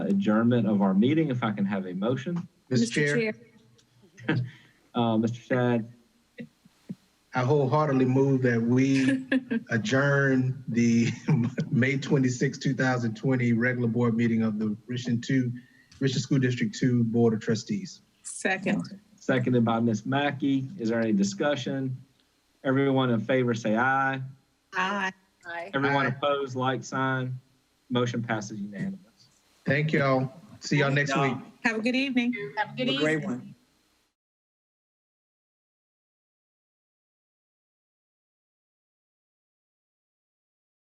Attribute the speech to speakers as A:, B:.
A: adjournment of our meeting, if I can have a motion.
B: Mr. Chair,
A: Uh, Mr. Shad,
B: I wholeheartedly move that we adjourn the May 26, 2020 regular board meeting of the Richland 2, Richland School District 2 Board of Trustees.
C: Second.
A: seconded by Ms. Mackey. Is there any discussion? Everyone in favor, say aye.
C: Aye.
A: Everyone
B: Aye.
A: opposed, like sign. Motion passes unanimous.
B: Thank y'all. See y'all next week.
C: Have a good evening.
D: Have a good evening.
E: one.